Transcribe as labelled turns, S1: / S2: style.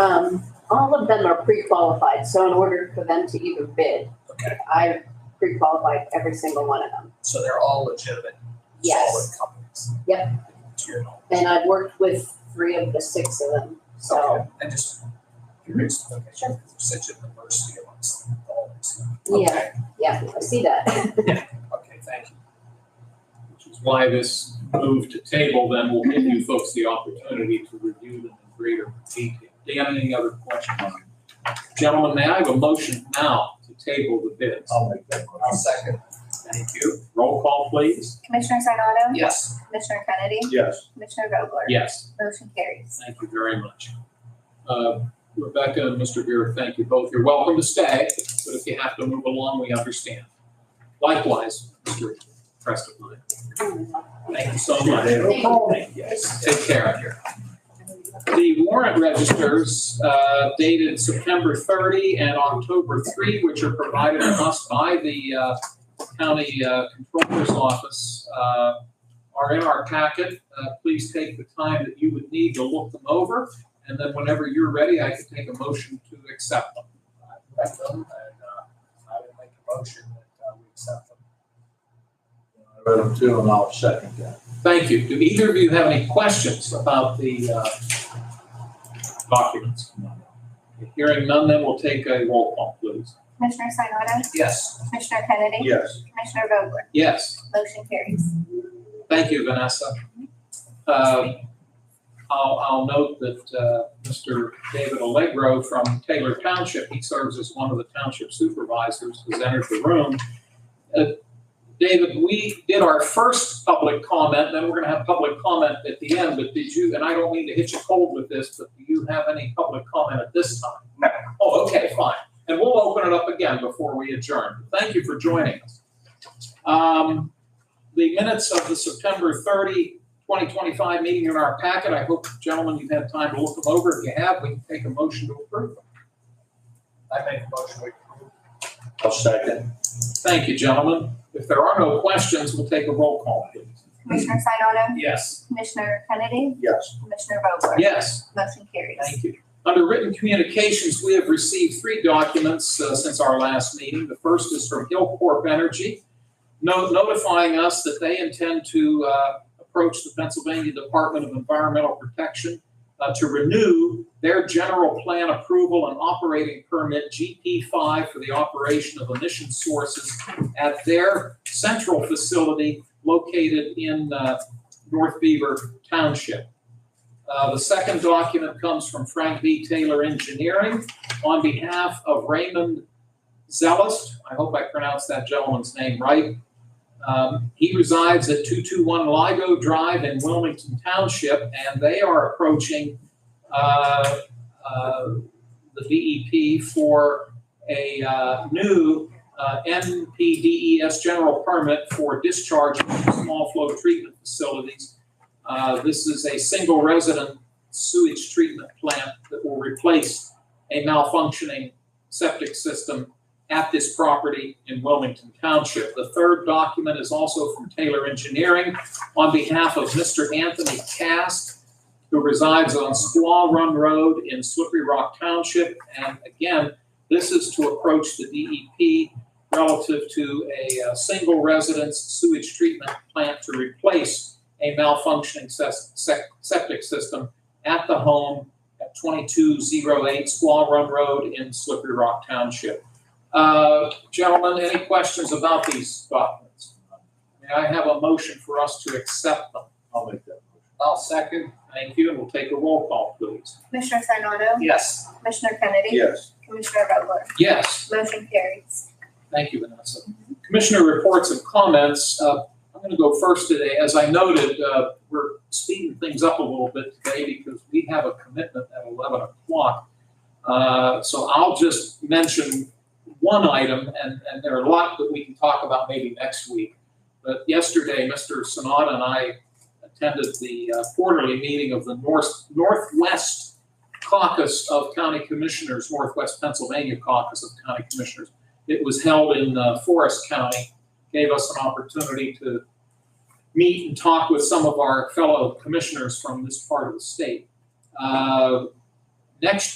S1: Um, all of them are pre-qualified, so in order for them to even bid,
S2: Okay,
S1: I've pre-qualified every single one of them.
S2: so they're all legitimate, solid
S1: Yes,
S2: companies? To your knowledge?
S1: and I've worked with three of the six of them, so,
S2: Okay, And just curious, okay, such a diversity amongst all these.
S1: yeah, yeah, I see that.
S2: Okay, thank you.
S3: which is why this move to table then will give you folks the opportunity to review them in greater detail. Do you have any other questions? Gentlemen, may I have a motion now to table the bids?
S2: I'll make that motion. second.
S3: Thank you. Roll call, please.
S4: Commissioner Sanado?
S2: Yes.
S4: Commissioner Kennedy?
S3: Yes.
S4: Commissioner Vogler?
S3: Yes,
S4: Motion carries.
S3: thank you very much. Uh, Rebecca and Mr. Vera, thank you both. You're welcome to stay, but if you have to move along, we understand. Likewise, Mr. Preston, thank you so much.
S2: Yes.
S3: Take care of you. The warrant registers uh, dated September 30 and October 3, which are provided to us by the uh, county uh, controller's office, uh, are in our packet. Uh, Please take the time that you would need to look them over, and then whenever you're ready, I can take a motion to accept them.
S2: I read them and, uh, I would make a motion that uh, we accept them.
S5: I read them too, and I'll second that.
S3: Thank you. Do either of you have any questions about the uh, documents? Hearing none, then we'll take a roll call, please.
S4: Commissioner Sanado?
S2: Yes.
S4: Commissioner Kennedy?
S5: Yes.
S4: Commissioner Vogler?
S3: Yes.
S4: Motion carries.
S3: Thank you, Vanessa. Um, I'll, I'll note that uh, Mr. David Allegro from Taylor Township, he serves as one of the township supervisors, has entered the room. Uh, David, we did our first public comment, then we're going to have public comment at the end, but did you, and I don't mean to hit you cold with this, but do you have any public comment at this time? No. Oh, okay, fine. And we'll open it up again before we adjourn. Thank you for joining us. Um, the minutes of the September 30, 2025 meeting in our packet. I hope, gentlemen, you've had time to look them over. If you have, we can take a motion to approve them.
S2: I make a motion we approve.
S5: I'll second.
S3: Thank you, gentlemen. If there are no questions, we'll take a roll call, please.
S4: Commissioner Sanado?
S3: Yes.
S4: Commissioner Kennedy?
S5: Yes.
S4: Commissioner Vogler?
S3: Yes.
S4: Motion carries.
S3: Thank you. Under written communications, we have received three documents uh, since our last meeting. The first is from Hillcorp Energy no- notifying us that they intend to uh, approach the Pennsylvania Department of Environmental Protection uh, to renew their general plan approval and operating permit GP5 for the operation of emission sources at their central facility located in uh, North Beaver Township. Uh, The second document comes from Frank B. Taylor Engineering on behalf of Raymond Zellist. I hope I pronounced that gentleman's name right. Um, He resides at 221 Ligo Drive in Wilmington Township, and they are approaching uh, uh, the DEP for a uh, new uh, NPDES E general permit for discharge from small flow treatment facilities uh, This is a single resident sewage treatment plant that will replace a malfunctioning septic system at this property in Wilmington Township. The third document is also from Taylor Engineering on behalf of Mr. Anthony Cast, who resides on Squaw Run Road in Slippery Rock Township. And again, this is to approach the DEP relative to a uh, single residence sewage treatment plant to replace a malfunctioning ses- sec- septic system at the home at 2208 Squaw Run Road in Slippery Rock Township. Uh, Gentlemen, any questions about these documents? May I have a motion for us to accept them?
S5: I'll make that motion.
S3: I'll second. Thank you, and we'll take a roll call, please.
S4: Commissioner Sanado?
S3: Yes.
S4: Commissioner Kennedy?
S5: Yes.
S4: Commissioner Vogler?
S3: Yes.
S4: Motion carries.
S3: Thank you, Vanessa. Commissioner reports and comments. Uh, I'm going to go first today. As I noted, uh, we're speeding things up a little bit today because we have a commitment at 11 o'clock. Uh, So I'll just mention one item, and, and there are a lot that we can talk about maybe next week. But yesterday, Mr. Sanada and I attended the uh, quarterly meeting of the North Northwest Caucus of County Commissioners, Northwest Pennsylvania Caucus of County Commissioners it was held in uh, Forest County, gave us an opportunity to meet and talk with some of our fellow commissioners from this part of the state. Uh, Next